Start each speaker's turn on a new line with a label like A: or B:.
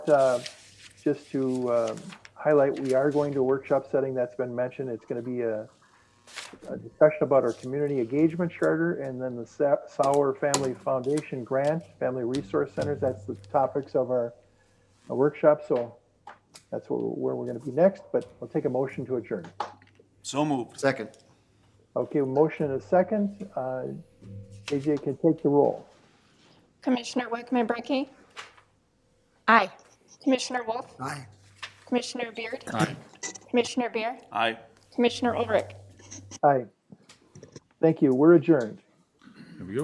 A: uh, just to um, highlight, we are going to a workshop setting that's been mentioned. It's going to be a, a discussion about our community engagement charter and then the Sa- Sauer Family Foundation grant, family resource centers. That's the topics of our our workshop. So that's where, where we're going to be next, but we'll take a motion to adjourn.
B: So moved.
C: Second.
A: Okay, motion and a second. Uh, JJ can take the roll.
D: Commissioner Wickman Brecky? Aye. Commissioner Wolf?
C: Aye.
D: Commissioner Beard? Aye. Commissioner Beer?
B: Aye.
D: Commissioner Ulrich?
A: Aye. Thank you. We're adjourned.